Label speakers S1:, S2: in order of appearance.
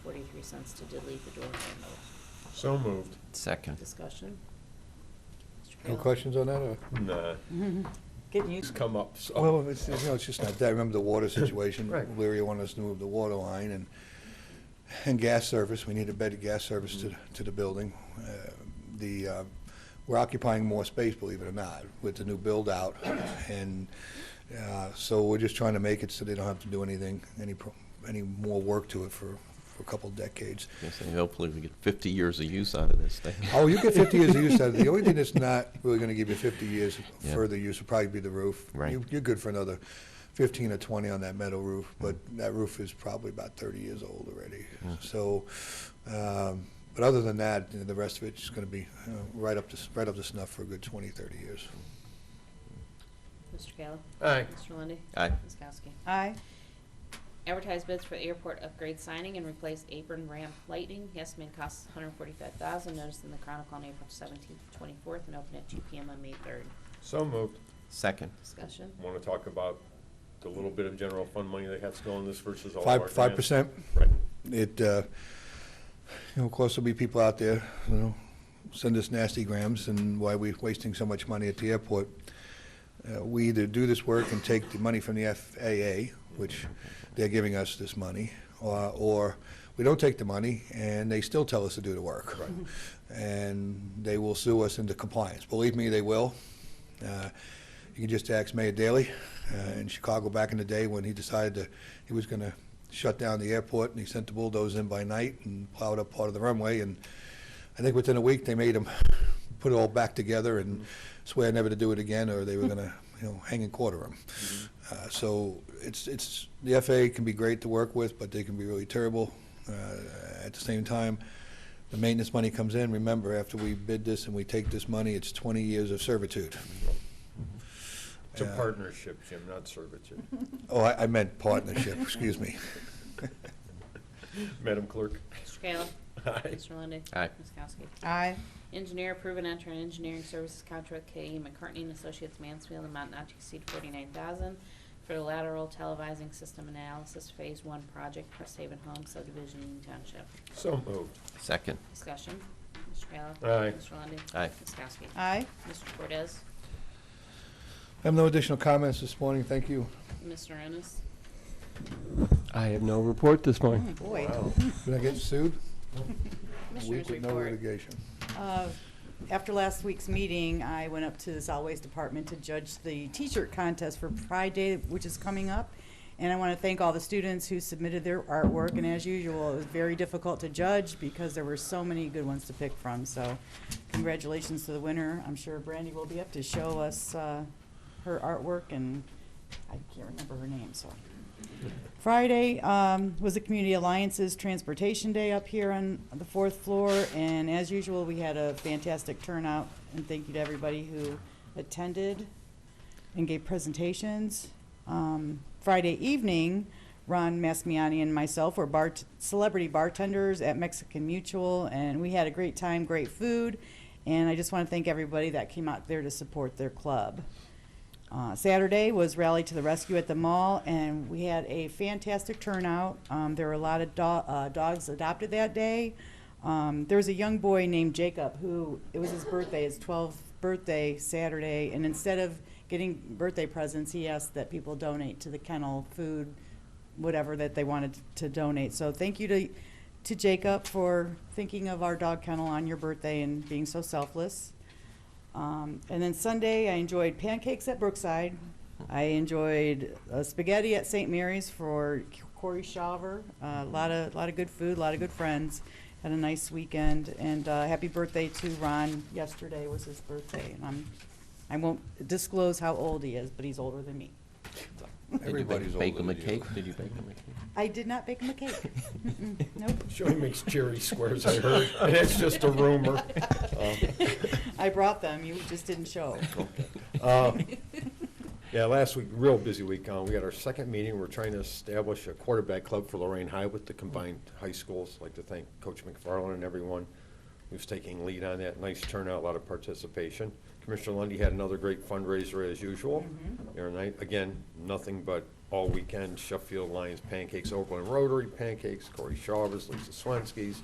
S1: sense to delete the door handle.
S2: So moved.
S3: Second.
S1: Discussion? Mr.
S4: No
S1: Kayla?
S4: questions on that, or?
S2: Nah,
S5: Getting
S2: it's
S5: used to
S2: come up, so.
S4: Well, it's, you know, it's just not that, I remember the water situation.
S2: Right.
S4: Leary wanted us to move the water line and, and gas service, we need a better gas service to, to the building. Uh, The, uh, we're occupying more space, believe it or not, with the new build-out, and, uh, so we're just trying to make it so they don't have to do anything, any, pro- any more work to it for, for a couple decades.
S3: Yes, and hopefully we get 50 years of use out of this thing.
S4: Oh, you get 50 years of use out of it. The only thing that's not really going to give you 50 years
S3: Yeah.
S4: further use would probably be the roof.
S3: Right.
S4: You- You're good for another 15 or 20 on that metal roof, but that roof is probably about 30 years old already. So, um, but other than that, you know, the rest of it's going to be uh, right up to, s- right up to snuff for a good 20, 30 years.
S1: Mr. Kayla?
S2: Aye.
S1: Mr. Lundy.
S3: Aye.
S1: Ms. Kowski?
S5: Aye.
S1: Advertise bids for airport upgrade signing and replace apron ramp lighting. The estimated cost is $145,000. Notice in the Chronicle on April 17th, 24th, and open at 2 PM on May 3rd.
S2: So moved.
S3: Second.
S1: Discussion?
S2: Want to talk about the little bit of general fund money that has to go in this versus all of our
S4: Five,
S2: grants?
S4: 5%?
S2: Right.
S4: it, uh, you know, of course, there'll be people out there, you know, send us nasty grams and why we're wasting so much money at the airport. Uh, We either do this work and take the money from the FAA, which they're giving us this money, or, or we don't take the money and they still tell us to do the work. And they will sue us into compliance. Believe me, they will. Uh, You can just ask Mayor Daley uh, in Chicago back in the day when he decided to, he was going to shut down the airport, and he sent the bulldozer in by night and plowed up part of the runway, and I think within a week, they made him put it all back together and swear never to do it again, or they were going to, you know, hang and quarter him. Uh, So it's, it's, the FAA can be great to work with, but they can be really terrible. Uh, At the same time, the maintenance money comes in, remember, after we bid this and we take this money, it's 20 years of servitude.
S2: It's a
S4: Yeah.
S2: partnership, Jim, not servitude.
S4: Oh, I, I meant partnership, excuse me.
S2: Madam Clerk?
S1: Mr. Kayla?
S2: Aye.
S1: Mr. Lundey.
S3: Aye.
S1: Ms. Kowski.
S5: Aye.
S1: Engineer approve and enter an engineering services contract with K.E. McCartney and Associates Mansfield amount not to exceed forty-nine thousand for the lateral televising system analysis phase one project for Saban Home subdivision Union Township.
S2: So moved.
S3: Second.
S1: Discussion. Mr. Kayla.
S2: Aye.
S1: Mr. Lundey.
S3: Aye.
S1: Ms. Kowski.
S5: Aye.
S1: Mr. Cortez.
S4: I have no additional comments this morning, thank you.
S1: Mr. Ennis.
S6: I have no report this morning.
S5: Oh, Boy.
S2: Wow.
S4: Did I get sued? A
S1: Commissioners
S4: week with no
S1: report.
S4: litigation.
S5: Uh, After last week's meeting, I went up to the solid waste department to judge the t-shirt contest for Pride Day, which is coming up. And I want to thank all the students who submitted their artwork, and as usual, it was very difficult to judge because there were so many good ones to pick from. So congratulations to the winner. I'm sure Brandy will be up to show us uh, her artwork, and I can't remember her name, so. Friday um, was the Community Alliances Transportation Day up here on the fourth floor, and as usual, we had a fantastic turnout, and thank you to everybody who attended and gave presentations. Um, Friday evening, Ron Masmiani and myself were bar- celebrity bartenders at Mexican Mutual, and we had a great time, great food, and I just want to thank everybody that came out there to support their club. Uh, Saturday was Rally to the Rescue at the Mall, and we had a fantastic turnout. Um, there were a lot of do- uh, dogs adopted that day. Um, there was a young boy named Jacob who it was his birthday, his 12th birthday Saturday, and instead of getting birthday presents, he asked that people donate to the kennel food, whatever that they wanted to donate. So thank you to to Jacob for thinking of our dog kennel on your birthday and being so selfless. Um, and then Sunday, I enjoyed pancakes at Brookside. I enjoyed uh, spaghetti at St. Mary's for Corey Shaver. Uh, A lot of lot of good food, a lot of good friends. Had a nice weekend, and uh, happy birthday to Ron. Yesterday was his birthday, and I'm I won't disclose how old he is, but he's older than me.
S3: Did
S4: Everybody's
S3: you bake- bake
S4: older
S3: them a
S4: than you.
S3: cake? Did you bake them a cake?
S5: I did not bake him a cake. Mm-mm, nope.
S2: Sure he makes cherry squares, I heard, and it's just a rumor. Um,
S5: I brought them. You just didn't show.
S2: Uh, Yeah, last week, real busy week. Uh, We had our second meeting. We're trying to establish a quarterback club for Lorraine High with the combined high schools. Like to thank Coach McFarland and everyone who's taking lead on that. Nice turnout, a lot of participation. Commissioner Lundy had another great fundraiser as usual. Aaron Knight, again, nothing but all weekend, Sheffield Lions pancakes, Oakland Rotary pancakes, Corey Chavez, Lisa Swensky's,